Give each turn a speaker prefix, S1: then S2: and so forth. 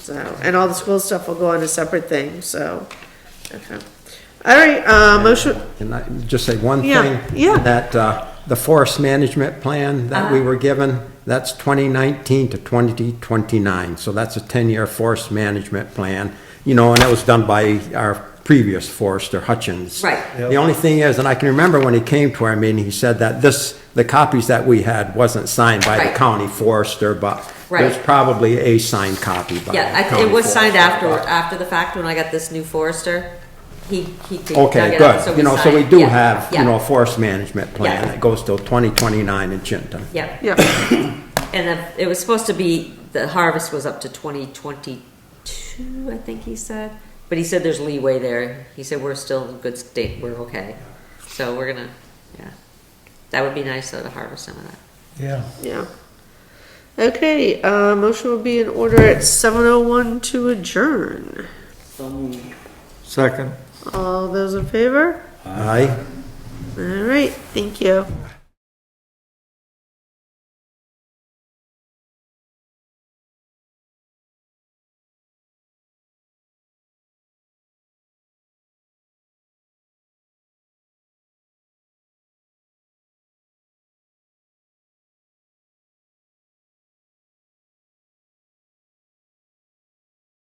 S1: So, and all the school stuff will go on a separate thing, so, okay. All right, uh, motion,
S2: And I just say one
S1: Yeah,
S2: thing.
S1: yeah.
S2: That, uh, the forest management plan that
S3: Uh-huh.
S2: we were given, that's 2019 to 2029. So that's a 10-year forest management plan, you know, and that was done by our previous forester Hutchins.
S3: Right.
S2: The only thing is, and I can remember when he came to our meeting, he said that this, the copies that we had wasn't signed by the
S3: Right.
S2: county forester, but there's
S3: Right.
S2: probably a signed copy by the
S3: Yeah, I-
S2: county
S3: it was signed
S2: forester,
S3: after,
S2: but-
S3: after the fact when I got this new forester. He, he dug it up,
S2: Okay,
S3: so
S2: good.
S3: we
S2: You know, so we
S3: signed.
S2: do
S3: Yeah,
S2: have, you
S3: yeah,
S2: know, a forest management plan
S3: Yeah.
S2: that goes till 2029 in Chinton.
S3: Yeah,
S1: yeah,
S3: and if- it was supposed to be, the harvest was up to twenty twenty-two, I think he said. But he said there's leeway there. He said we're still in good state, we're okay. So we're gonna, yeah. That would be nice though to harvest some of that.
S4: Yeah.
S1: yeah. Okay, uh, motion will be in order at seven oh one to adjourn.
S4: Second.
S1: All those in favor?
S2: Aye?
S1: All right, thank you.